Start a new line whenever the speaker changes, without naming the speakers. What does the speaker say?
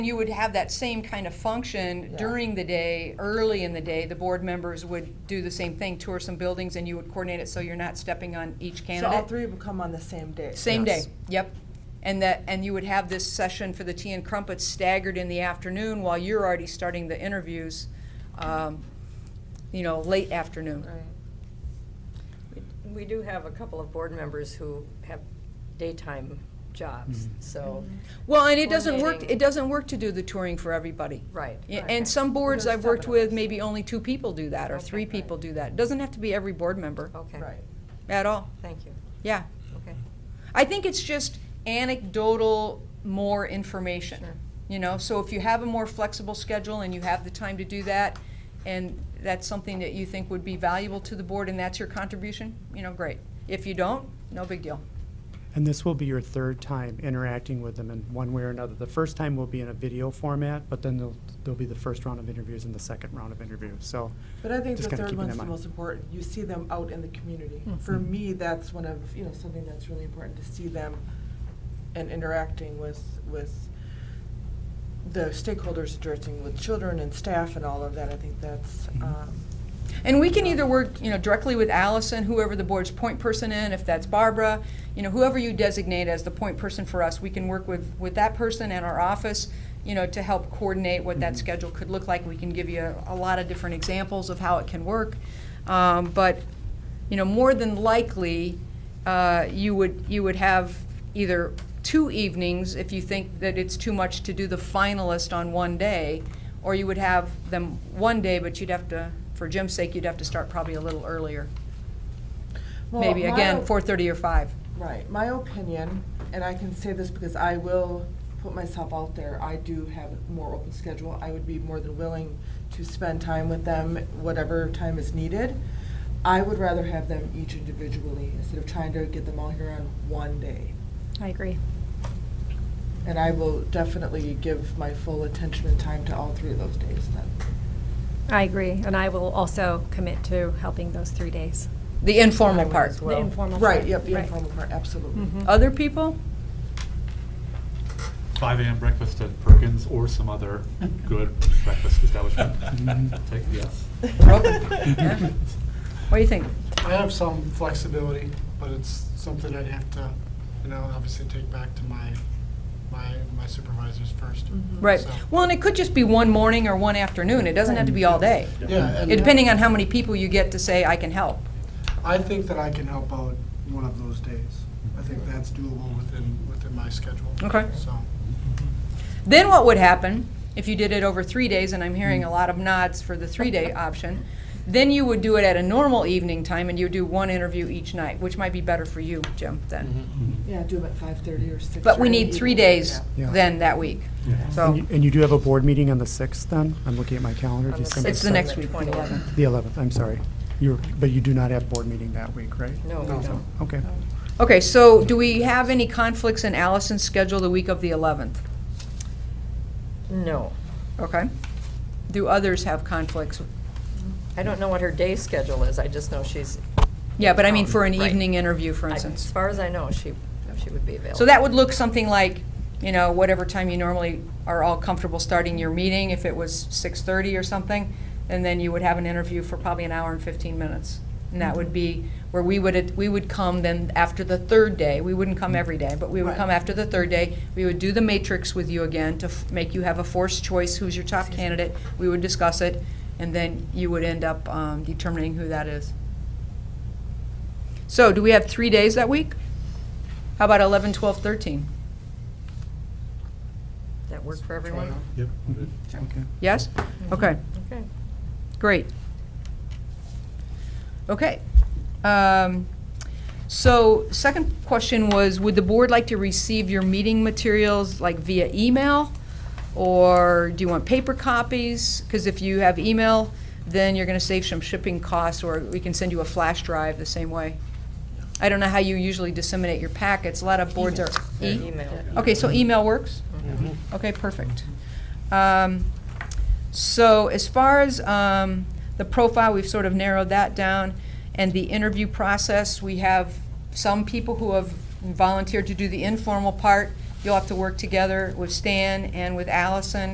You would have that same kind of function
Yeah.
during the day, early in the day, the board members would do the same thing, tour some buildings, and you would coordinate it so you're not stepping on each
So all
candidate.
three would come on the same day?
Same day,
Yes.
yep. And that, and you would have this session for the tea and crumpets staggered in the afternoon while you're already starting the interviews, um, you know, late afternoon.
Right.
We- We do have a couple of board members who have daytime jobs, so,
Well, and it doesn't work,
Coordinating.
it doesn't work to do the touring for everybody.
right.
Yeah,
right.
And some boards
There's
I've worked
seven of
with,
us.
maybe only two people do that, or
Okay,
three
right.
people do that. It Doesn't have to be every board member
Okay,
Right.
at all,
thank you,
yeah.
okay.
I think it's just anecdotal, more information.
Sure.
You know, so if you have a more flexible schedule and you have the time to do that, and that's something that you think would be valuable to the board, and that's your contribution, you know, great. If you don't, no big deal.
And this will be your third time interacting with them in one way or another. The first time will be in a video format, but then there'll, there'll be the first round of interviews and the second round of interviews, so.
But I think
just
the
kinda
third
keep it in
one's the
mind.
most important. You see them out in the community.
Mm-hmm.
For me, that's one of, you know, something that's really important, to see them and interacting with, with the stakeholders, interacting with children and staff and all of that. I think that's,
Mm-hmm.
um,
And we can either work, you know, directly with Allison, whoever the board's point person in, if that's Barbara, you know, whoever you designate as the point person for us, we can work with, with that person and our office, you know, to help coordinate what that schedule could look like. We can give you a, a lot of different examples of how it can work. Um, but, you know, more than likely, uh, you would, you would have either two evenings if you think that it's too much to do the finalist on one day, or you would have them one day, but you'd have to, for Jim's sake, you'd have to start probably a little earlier.
well,
Maybe,
my
again,
op-
four-thirty or five.
Right. My opinion, and I can say this because I will put myself out there, I do have a more open schedule. I would be more than willing to spend time with them, whatever time is needed. I would rather have them each individually instead of trying to get them all here on one day.
I agree.
And I will definitely give my full attention and time to all three of those days then.
I agree, and I will also commit to helping those three days.
The informal part.
The informal.
Right,
part.
yep, the
Right.
informal part, absolutely.
Mhm.
Other people?
5 AM breakfast at Perkins or some other good breakfast establishment. Take, yes.
Broken. What do you think?
I have some flexibility, but it's something I'd have to, you know, obviously take back to my, my my supervisors first.
Mm-hmm.
Right.
So-
Well, and it could just be one morning or one afternoon. It doesn't have to be all day. It-
Yeah, and
Depending on how many people you get to say, I can help.
I think that I can help out one of those days. I think that's doable within, within my schedule.
Okay.
So,
Then what would happen if you did it over three days, and I'm hearing a lot of nods for the three-day option, then you would do it at a normal evening time, and you would do one interview each night, which might be better for you, Jim,
Mm-hmm.
then.
Yeah, do them at five thirty or six.
But we need three days
Yeah.
then that week.
Yeah.
And
So
you- and you do have a board meeting on the sixth then? I'm looking at my calendar,
On the
December
it's
sixth.
the next
December
week, the
21st.
11th.
The eleventh, I'm sorry. You're, but you do not have board meeting that week, right?
No, we don't.
Okay.
Okay, so do we have any conflicts in Allison's schedule the week of the 11th?
No,
Okay. Do others have conflicts?
I don't know what her day schedule is, I just know she's,
Yeah, but I mean for an
Um, Right.
evening interview, for
I-
instance.
as far as I know, she, she would be available.
So that would look something like, you know, whatever time you normally are all comfortable starting your meeting, if it was 6:30 or something, and then you would have an interview for probably an hour and 15 minutes. And that would be where we would, we would come then after the third day, we wouldn't come every day, but we would
Right.
come after the third day, we would do the matrix with you again to f- make you have a forced choice, who's your top candidate, we would discuss it, and then you would end up um, determining who that is. So do we have three days that week? How about 11, 12, 13?
That work for everyone?
Yep. good.
Okay.
Yes? Okay,
Okay.
great. Okay. Um, So, second question was, would the board like to receive your meeting materials like via email? Or do you want paper copies? Because if you have email, then you're going to save some shipping costs, or we can send you a flash drive the same way. I don't know how you usually disseminate your packets. A lot of boards are. E-
Email.
Okay, so email works? Okay, perfect. Um, So as far as um, the profile, we've sort of narrowed that down. And the interview process, we have some people who have volunteered to do the informal part, You'll have to work together with Stan and with Allison